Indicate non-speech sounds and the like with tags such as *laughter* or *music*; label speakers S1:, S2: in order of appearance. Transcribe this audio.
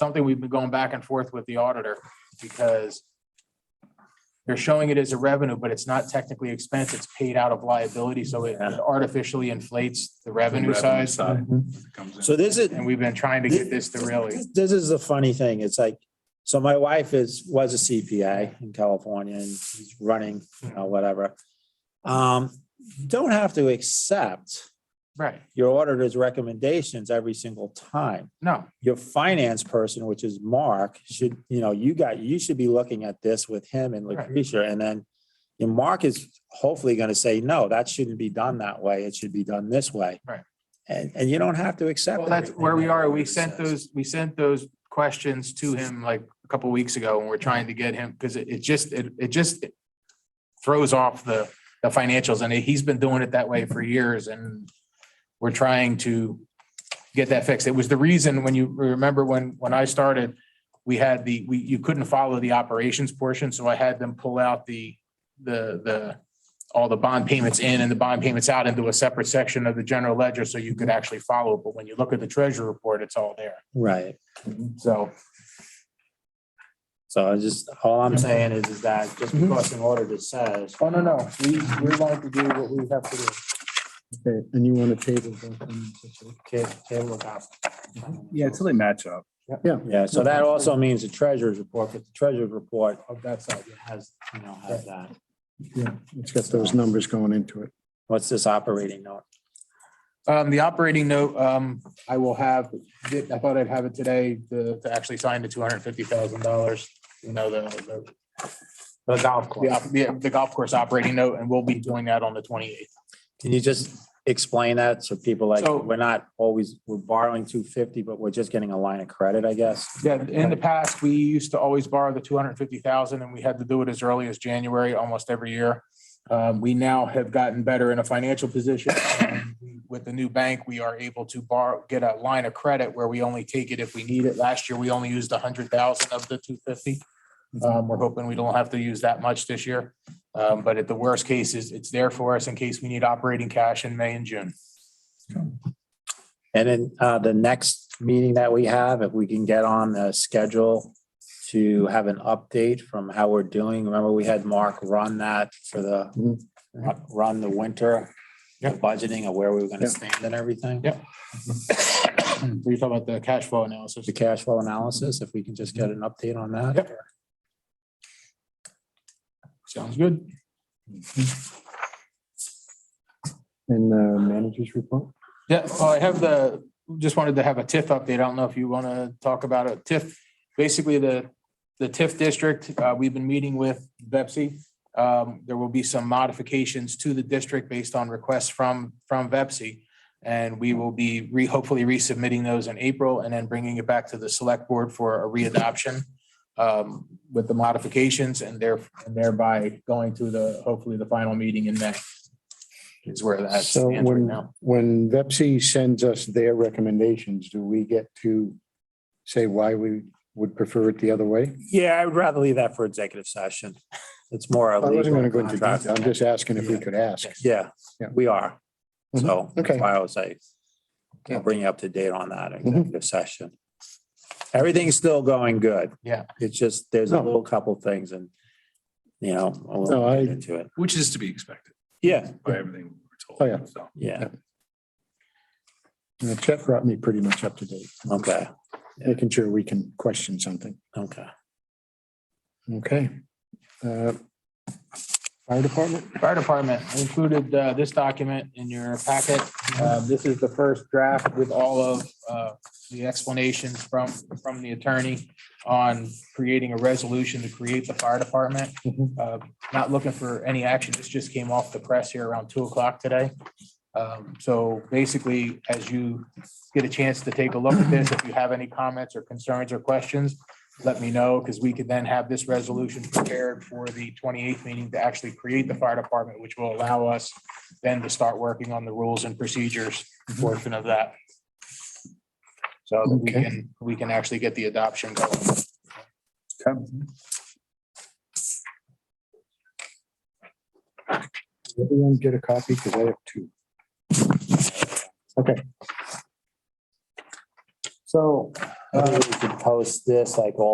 S1: something we've been going back and forth with the auditor because they're showing it as a revenue, but it's not technically expense. It's paid out of liability, so it
S2: Yeah.
S1: artificially inflates the revenue size.
S3: comes in.
S2: Uh, So this is,
S1: And we've been trying to get this to really,
S2: this is the funny thing. It's like, so my wife is, was a CPA in California and she's running, you know, whatever. Um, you don't have to accept
S1: right,
S2: your auditor's recommendations every single time.
S1: no,
S2: your finance person, which is Mark, should, you know, you got, you should be looking at this with him and
S1: Correct.
S2: Lucretia. And then your Mark is hopefully going to say, no, that shouldn't be done that way. It should be done this way.
S1: Right.
S2: And, and you don't have to accept.
S1: Well, that's
S2: everything
S1: where we
S2: that
S1: are. We
S2: everybody
S1: sent
S2: says.
S1: those, we sent those questions to him like a couple weeks ago and we're trying to get him because it, it just, it, it just throws off the, the financials and he's been doing it that way for years and we're trying to get that fixed. It was the reason when you remember when, when I started, we had the, we, you couldn't follow the operations portion. So I had them pull out the, the, the, all the bond payments in and the bond payments out into a separate section of the general ledger so you could actually follow. But when you look at the treasury report, it's all there.
S2: Right.
S1: So,
S2: So I just, all I'm saying is, is that just because an auditor says,
S1: oh, no, no, we, we're going to do what we have to do.
S4: Okay, and you want to table that?
S2: okay, okay, look out.
S3: Yeah, until they match up.
S2: Yeah, so that also means the treasurer's report, but the treasurer's report
S1: Of that side.
S2: has, you know, has that.
S4: Yeah, it's got those numbers going into it.
S2: What's this operating note?
S1: Um, the operating note, um, I will have, I thought I'd have it today to, to actually sign the two hundred and fifty thousand dollars, you know, the, the
S2: The golf course.
S1: the op- the, the golf course operating note, and we'll be doing that on the twenty eighth.
S2: Can you just explain that? So people like,
S1: So-
S2: we're not always, we're borrowing two fifty, but we're just getting a line of credit, I guess.
S1: Yeah, in the past, we used to always borrow the two hundred and fifty thousand and we had to do it as early as January, almost every year. Um, we now have gotten better in a financial position. *clears throat* With the new bank, we are able to borrow, get a line of credit where we only take it if we need it. Last year, we only used a hundred thousand of the two fifty. Um, we're hoping we don't have to use that much this year. Um, but at the worst case is it's there for us in case we need operating cash in May and June.
S2: And then uh, the next meeting that we have, if we can get on the schedule to have an update from how we're doing. Remember, we had Mark run that for the,
S4: Mhm.
S2: run the winter
S1: Yeah.
S2: budgeting of where we were gonna
S4: Yeah.
S2: stand and everything.
S1: Yeah. Were you talking about the cash flow analysis?
S2: The cash flow analysis, if we can just
S4: Mm-hmm.
S2: get an update on that.
S1: Yep. Sounds good.
S4: And the manager's report?
S1: Yeah, well, I have the, just wanted to have a TIF update. I don't know if you want to talk about it. TIF, basically the, the TIF district, uh, we've been meeting with Vepsi. Um, there will be some modifications to the district based on requests from, from Vepsi. And we will be re, hopefully resubmitting those in April and then bringing it back to the select board for a readoption um, with the modifications and there, and thereby going to the, hopefully the final meeting in May. Is where that
S4: So
S1: stands right now.
S4: when, when Vepsi sends us their recommendations, do we get to say why we would prefer it the other way?
S2: Yeah, I would rather leave that for executive session. It's more.
S4: I wasn't going to go into
S2: contract.
S4: detail. I'm just asking if we could ask.
S2: Yeah,
S4: Yeah. Mm-hmm.
S2: we are. So that's
S4: Okay.
S2: why I was like,
S1: Yeah.
S2: I'll bring you up to date on that
S4: Mhm.
S2: executive session. Everything's still going good.
S1: Yeah.
S2: It's just, there's a
S4: No.
S2: little couple things and, you know,
S4: No,
S2: we'll
S4: I-
S2: get into it.
S3: Which is to be expected
S2: Yeah,
S3: by everything we were told.
S4: Oh, yeah.
S3: So
S2: yeah,
S4: Uh, Chet brought me pretty much up to date,
S2: okay,
S4: making sure we can question something.
S2: okay.
S4: Okay. Uh, Fire department?
S1: Fire Department I included uh, this document in your packet. Uh, This is the first draft with all of uh, the explanations from, from the attorney on creating a resolution to create the fire department.
S4: Mhm.
S1: Uh, Not looking for any action. This just came off the press here around two o'clock today. Um, So basically, as you get a chance to take a look at this, if you have any comments or concerns or questions, let me know, because we could then have this resolution prepared for the twenty-eighth meeting to actually create the fire department, which will allow us then to start working on the rules and procedures portion of that. So that we
S4: Okay.
S1: can, we can actually get the adoption going.
S4: Everyone get a copy because I have two. Okay.
S2: So. We could post this like all